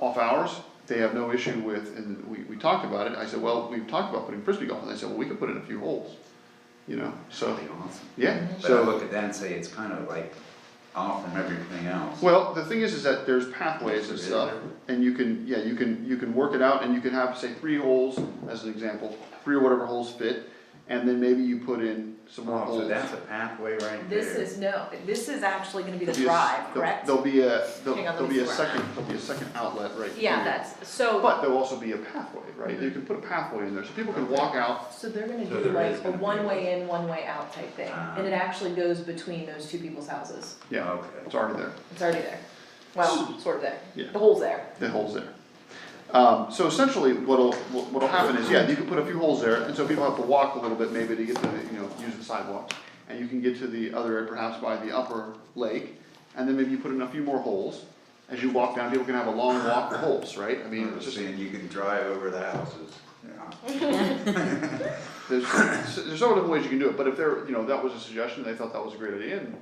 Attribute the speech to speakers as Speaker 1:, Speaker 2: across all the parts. Speaker 1: off hours, they have no issue with, and we, we talked about it, I said, well, we've talked about putting frisbee golf, and they said, well, we could put in a few holes, you know, so,
Speaker 2: Really awesome.
Speaker 1: yeah,
Speaker 2: But I
Speaker 1: so.
Speaker 2: look at that and say, it's kind of like off from everything else.
Speaker 1: Well, the thing is, is that there's pathways and stuff, and you can, yeah, you can, you can work it out, and you can have, say, three holes, as an example, three or whatever holes fit, and then maybe you put in some more
Speaker 2: Oh,
Speaker 1: holes.
Speaker 2: so that's a pathway right there.
Speaker 3: This is no, this is actually gonna be the
Speaker 1: There'll be a s-
Speaker 3: drive, correct?
Speaker 1: There'll there'll be a, there'll,
Speaker 3: Hang on, let
Speaker 1: there'll
Speaker 3: me
Speaker 1: be a
Speaker 3: swear.
Speaker 1: second, there'll be a second outlet right here.
Speaker 3: Yeah, that's, so,
Speaker 1: But there'll also be a pathway, right, you can put a pathway in there, so people can walk out,
Speaker 3: so they're gonna
Speaker 2: So
Speaker 3: do
Speaker 2: there
Speaker 3: like
Speaker 2: is
Speaker 3: a
Speaker 2: gonna be-
Speaker 3: one-way in, one-way out type thing,
Speaker 1: Ah.
Speaker 3: and it actually goes between those two people's houses,
Speaker 1: yeah,
Speaker 2: Okay.
Speaker 1: it's already there.
Speaker 3: it's already there. Well, sort of there,
Speaker 1: Hmm. Yeah.
Speaker 3: the hole's there,
Speaker 1: the holes there. Um, so essentially, what'll, what- what'll happen is, yeah, you can put a few holes there, and so people have to walk a little bit maybe to get to, the you know, use the sidewalk. And you can get to the other end perhaps by the upper lake, and then maybe you put in a few more holes. As you walk down, people can have a long walk with holes, right? I mean,
Speaker 2: I'm
Speaker 1: it's just,
Speaker 2: just saying, you can drive over the houses. Yeah.
Speaker 1: there's, there's several different ways you can do it, but if they're, you know, that was a suggestion, they thought that was a great idea, and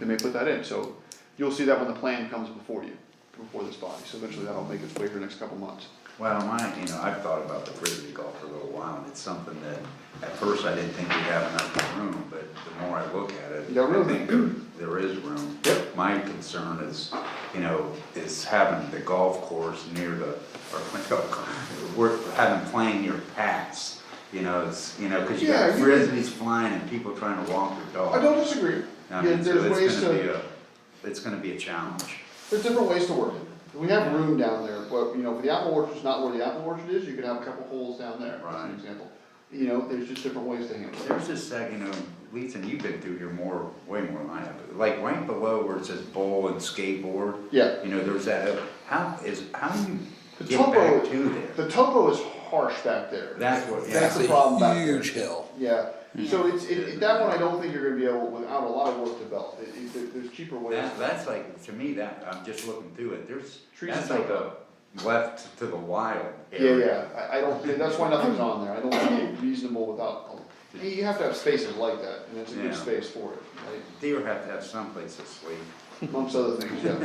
Speaker 1: they may put that in, so you'll see that when the plan comes before you, before this body, so eventually that'll make its way here next couple months.
Speaker 2: Well, my, you know, I've thought about the frisbee golf for a little while, and it's something that, at first, I didn't think we have enough room, but the more I look at it,
Speaker 1: Yeah,
Speaker 2: I
Speaker 1: room.
Speaker 2: think there, there is room.
Speaker 1: Yep.
Speaker 2: My concern is, you know, is having the golf course near the, or, we're having playing near paths, you know, it's, you know, cause you got
Speaker 1: Yeah, you can-
Speaker 2: frisbees flying and people trying to walk their dog.
Speaker 1: I don't disagree.
Speaker 2: I
Speaker 1: Yeah,
Speaker 2: mean, so
Speaker 1: there's
Speaker 2: it's
Speaker 1: ways
Speaker 2: gonna be
Speaker 1: to,
Speaker 2: a- It's gonna be a challenge.
Speaker 1: there's different ways to work it. We have room down there, but, you know, if the apple orchard's not where the apple orchard is, you could have a couple holes down there, as
Speaker 2: Right.
Speaker 1: an example. You know, there's just different ways to handle it.
Speaker 2: There's this, uh, you know, Leeds, and you've been through here more, way more than I have, but like right below where it says bowl and skateboard,
Speaker 1: Yeah,
Speaker 2: you know, there's that, uh, how is, how do
Speaker 1: The
Speaker 2: you get
Speaker 1: topo-
Speaker 2: back to there?
Speaker 1: the topo is harsh back there.
Speaker 2: That's what,
Speaker 1: That's
Speaker 2: yeah,
Speaker 1: the problem back there.
Speaker 4: Huge hill.
Speaker 1: Yeah, so it's, it, it- that one I don't think you're gonna be able, without a lot of work to develop, it, it, there- there's cheaper ways.
Speaker 2: that, that's like, to me, that, I'm just looking through it, there's,
Speaker 1: Trees
Speaker 2: that's
Speaker 1: and
Speaker 2: like a left to the wild
Speaker 1: Yeah,
Speaker 2: area.
Speaker 1: yeah, I, I don't, think- that's why nothing's on there, I don't think it's reasonable without, oh, you have to have spaces like that, and it's a good
Speaker 2: Yeah.
Speaker 1: space for it,
Speaker 2: Deer have to have someplace to sleep.
Speaker 1: right? Amongst other things, yeah,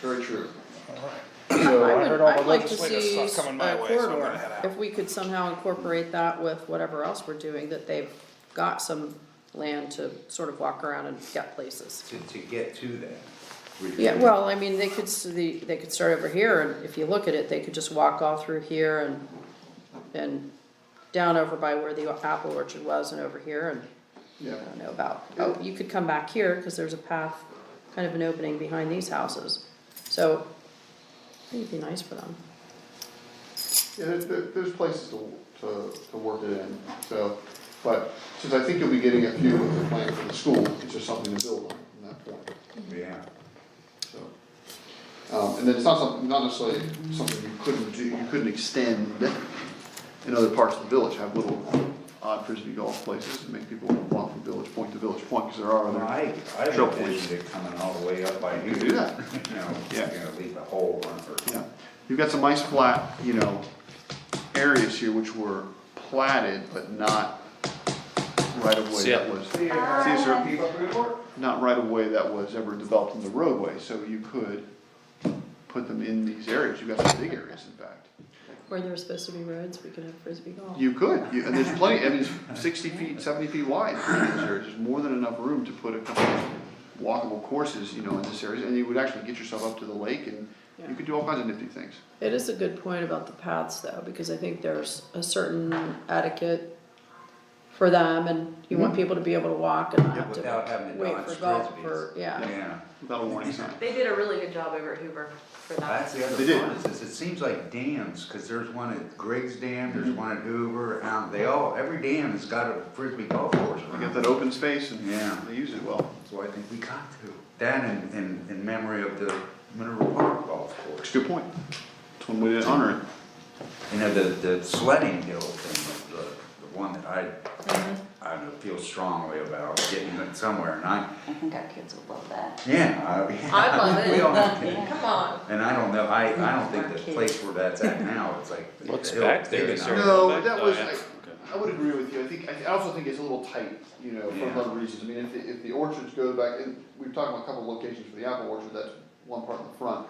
Speaker 1: very true.
Speaker 5: So
Speaker 6: I
Speaker 5: I
Speaker 6: would,
Speaker 5: heard all
Speaker 6: I'd
Speaker 5: the
Speaker 6: like to
Speaker 5: legislative
Speaker 6: see
Speaker 5: stuff coming my
Speaker 6: a
Speaker 5: way, so I'm gonna
Speaker 6: corridor,
Speaker 5: head out.
Speaker 6: if we could somehow incorporate that with whatever else we're doing, that they've got some land to sort of walk around and get places.
Speaker 2: to, to get to that.
Speaker 6: Yeah, well, I mean, they could, s- the- they could start over here, and if you look at it, they could just walk all through here and, and down over by where the apple orchard was and over here, and
Speaker 1: Yeah,
Speaker 6: I don't know about, oh, you could come back here, cause there's a path, kind of an opening behind these houses. So, I think it'd be nice for them.
Speaker 1: yeah, there, there, there's places to, to, to work it in, so, but since I think you'll be getting a few of the plan for the school, it's just something to build on from that point,
Speaker 2: Yeah.
Speaker 1: so. Um, and then it's not something, not necessarily something you couldn't do, you couldn't extend in other parts of the village, have little odd frisbee golf places and make people walk from village point to village point, cause there are
Speaker 2: Well,
Speaker 1: other.
Speaker 2: I, I
Speaker 1: Sure,
Speaker 2: would envision it coming all the way up by you.
Speaker 1: do that.
Speaker 2: You know, you're
Speaker 1: Yeah.
Speaker 2: gonna leave a hole on for.
Speaker 1: Yeah, you've got some nice flat, you know, areas here which were platted, but not right of way
Speaker 5: See
Speaker 1: that
Speaker 5: it.
Speaker 1: was. See, is there- not right of way that was ever developed in the roadway, so you could put them in these areas, you've got some big areas in fact.
Speaker 6: Where there's supposed to be roads, we could have frisbee golf.
Speaker 1: You could, you, and there's plenty, I mean, it's sixty feet, seventy feet wide in these areas, there's more than enough room to put a couple of walkable courses, you know, in this area, and you would actually get yourself up to the lake and you could do all kinds of nifty things.
Speaker 6: It is a good point about the paths though, because I think there's a certain etiquette for them and you want people to be able to walk and not
Speaker 2: Mm-hmm. Yeah,
Speaker 6: have
Speaker 2: without having
Speaker 6: to
Speaker 2: to
Speaker 6: wait
Speaker 2: dodge
Speaker 6: for golf
Speaker 2: frisbees.
Speaker 6: for, yeah.
Speaker 2: Yeah,
Speaker 1: Without a warning sign.
Speaker 3: they did a really good job over at Hoover for that.
Speaker 2: that's the other
Speaker 1: They did.
Speaker 2: one, is, is it seems like dams, cause there's one at Griggs Dam, there's one at Hoover, and they all, every dam has got a frisbee golf course
Speaker 1: We got
Speaker 2: around.
Speaker 1: that open space and
Speaker 2: Yeah.
Speaker 1: they use it well.
Speaker 2: So I think we got to, that in, in, in memory of the Mineral Park golf
Speaker 1: It's
Speaker 2: course,
Speaker 1: a good point. It's one way to honor
Speaker 2: you know, the, the sledding hill thing, the, the one that I,
Speaker 7: Mm-hmm.
Speaker 2: I don't know, feel strongly about getting it somewhere, and I,
Speaker 7: I think our kids will love that.
Speaker 2: yeah, I.
Speaker 3: I love
Speaker 2: We all have
Speaker 3: it,
Speaker 2: to.
Speaker 3: come on.
Speaker 2: And I don't know, I, I don't think the
Speaker 7: Arcade.
Speaker 2: place where that's at now, it's like.
Speaker 5: What's
Speaker 2: it'll-
Speaker 5: back there,
Speaker 2: they
Speaker 5: is
Speaker 2: can-
Speaker 1: it.
Speaker 5: Sure.
Speaker 1: No, that
Speaker 5: Oh,
Speaker 1: was,
Speaker 5: yeah.
Speaker 1: I, I would agree with you. I think, I also think it's a little tight, you know, for a lot of reasons. I mean, if, the- if the orchards go back, and we've talked about a couple of locations for the apple orchard, that's one part in the front.